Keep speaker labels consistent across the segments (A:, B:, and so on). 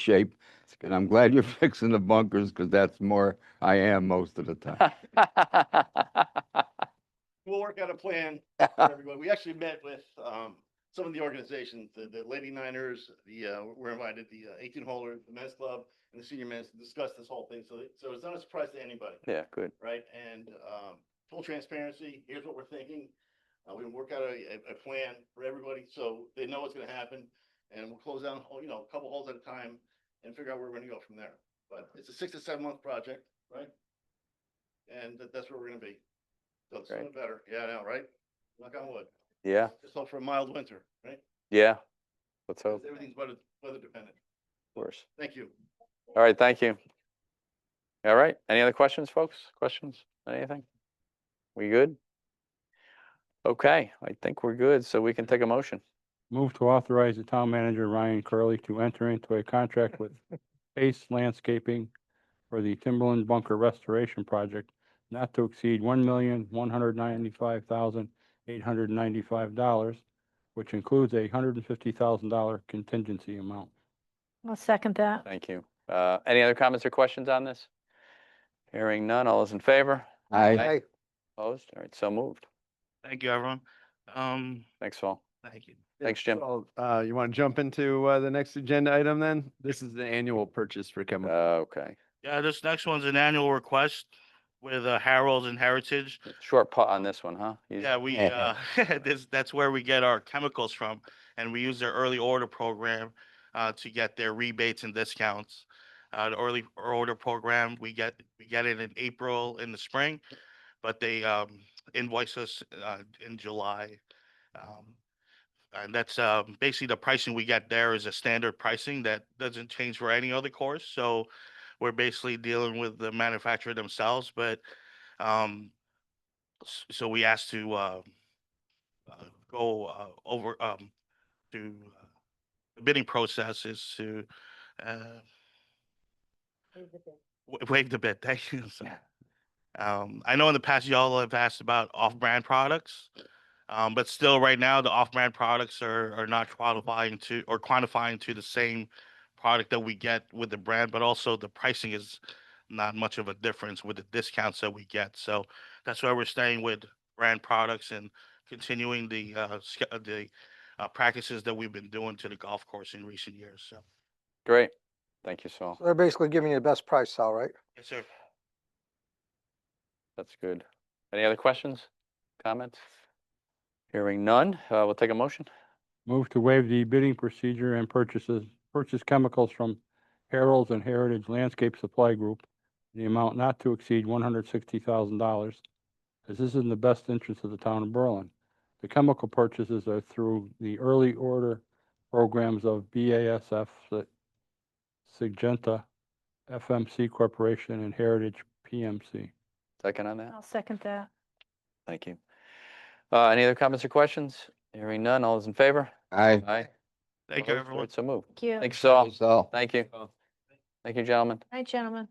A: shape. And I'm glad you're fixing the bunkers because that's more I am most of the time.
B: We'll work out a plan for everybody. We actually met with, um, some of the organizations, the, the Lady Niners, the, uh, we're invited, the eighteen holer, the men's club, and the senior men's to discuss this whole thing. So, so it's not a surprise to anybody,
C: Yeah, good.
B: right? And, um, full transparency, here's what we're thinking. Uh, we can work out a, a, a plan for everybody, so they know what's gonna happen. And we'll close down, you know, a couple holes at a time and figure out where we're gonna go from there. But it's a six to seven month project, right? And that, that's where we're gonna be. So it's
C: Great.
B: doing better. Yeah, I know, right? Knock on wood.
C: Yeah,
B: Just hope for a mild winter, right?
C: yeah. Let's
B: 'Cause
C: hope,
B: Everything's weather, weather dependent.
C: of course.
B: Thank you.
C: All right, thank you. All right, any other questions, folks? Questions? Anything? We good? Okay, I think we're good, so we can take a motion.
D: Move to authorize the town manager, Ryan Curley, to enter into a contract with Pace Landscaping for the Timberland Bunker Restoration Project not to exceed one million, one hundred ninety-five thousand, eight hundred ninety-five dollars, which includes a hundred and fifty thousand dollar contingency amount.
E: I'll second that.
C: Thank you. Uh, any other comments or questions on this? Hearing none, all those in favor?
A: I,
C: Aye. Opposed? All right, so moved.
F: Thank you, everyone. Um,
C: Thanks, all.
F: thank you.
C: Thanks, Jim.
G: So, Uh, you want to jump into, uh, the next agenda item then? This is the annual purchase for
C: Uh,
G: chemical.
C: Okay,
F: Yeah, this next one's an annual request with uh, Harold's and Heritage.
C: short putt on this one, huh? You-
F: Yeah, we, uh, this, that's where we get our chemicals from, and we use their early order program, uh, to get their rebates and discounts. Uh, the early order program, we get, we get it in April in the spring, but they, um, invoice us, uh, in July. Um, And that's, uh, basically the pricing we get there is a standard pricing that doesn't change for any other course, so we're basically dealing with the manufacturer themselves, but, um, s- so we asked to uh, uh, go uh, over um, to uh, the bidding process is to uh, wa- waive the bid. Thank you. sorry. Um, I know in the past y'all have asked about off-brand products, um, but still, right now, the off-brand products are are not qualifying to or quantifying to the same product that we get with the brand, but also the pricing is not much of a difference with the discounts that we get. So that's why we're staying with brand products and continuing the uh, sch- uh, the uh, practices that we've been doing to the golf course in recent years. So,
C: Great. Thank you, Saul.
H: So They're basically giving you the best price, Sal, right?
F: yes, sir.
C: That's good. Any other questions, comments? Hearing none, uh, we'll take a motion.
D: Move to waive the bidding procedure and purchases, purchase chemicals from Harold's and Heritage Landscape Supply Group, in the amount not to exceed one hundred sixty thousand dollars, as this is in the best interest of the town of Berlin. The chemical purchases are through the early order programs of BASF, Sig- Sigenta, FMC Corporation, and Heritage PMC.
C: Second on that?
E: I'll second that.
C: Thank you. Uh, any other comments or questions? Hearing none, all those in favor?
A: I,
C: Aye.
F: Thank you,
C: Opposed? All
F: everyone.
C: right, So moved.
E: Thank you.
C: Thanks, all.
A: so,
C: Thank you. Thank you, gentlemen.
E: Hi, gentlemen.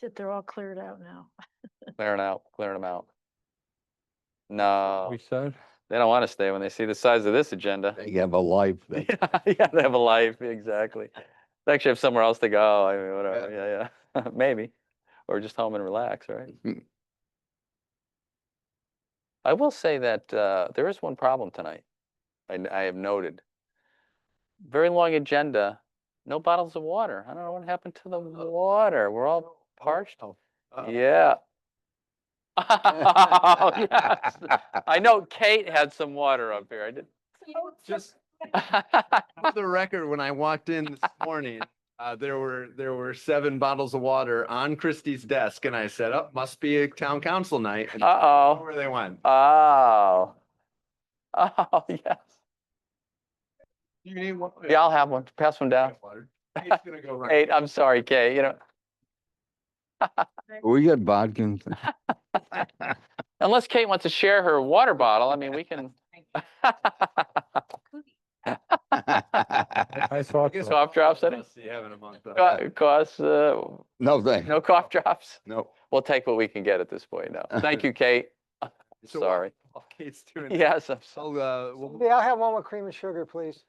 E: Did They're all cleared out now.
C: Clearing out, clearing them out. No,
D: We said?
C: they don't want to stay when they see the size of this agenda.
A: they have a life. they-
C: Yeah, they have a life, exactly. They actually have somewhere else to go, I mean, whatever, yeah, yeah, maybe. Or just home and relax, right?
A: Mm.
C: I will say that uh, there is one problem tonight, I n- I have noted. Very long agenda, no bottles of water. I don't know what happened to the water. We're
G: Oh,
C: all parched. Yeah. Oh, yes. I know Kate had some water up here. I did.
G: Just
C: not
G: for the record, when I walked in this morning, uh, there were, there were seven bottles of water on Christie's desk and I said, oh, must be a town council night. and
C: Uh-oh.
G: Where they went.
C: Oh. Oh, yes.
G: You need one?
C: Yeah, I'll have one. Pass one down.
G: Water. Kate's gonna go run.
C: Eight, I'm sorry, Kay, you know,
A: We got vodka. and-
C: unless Kate wants to share her water bottle, I mean, we can.
D: I thought
G: guess
D: so.
C: Cough drops, I think.
G: Must be having a month off.
C: Co- Cost, uh,
A: No, thanks.
C: no cough drops.
A: No.
C: We'll take what we can get at this point, no. Thank you, Kate.
G: So-
C: Sorry.
I: rebates too. and
J: Yes, I'm sorry.
I: I'll, uh, we'll-
G: uh, Yeah, I'll have one with cream and sugar, please.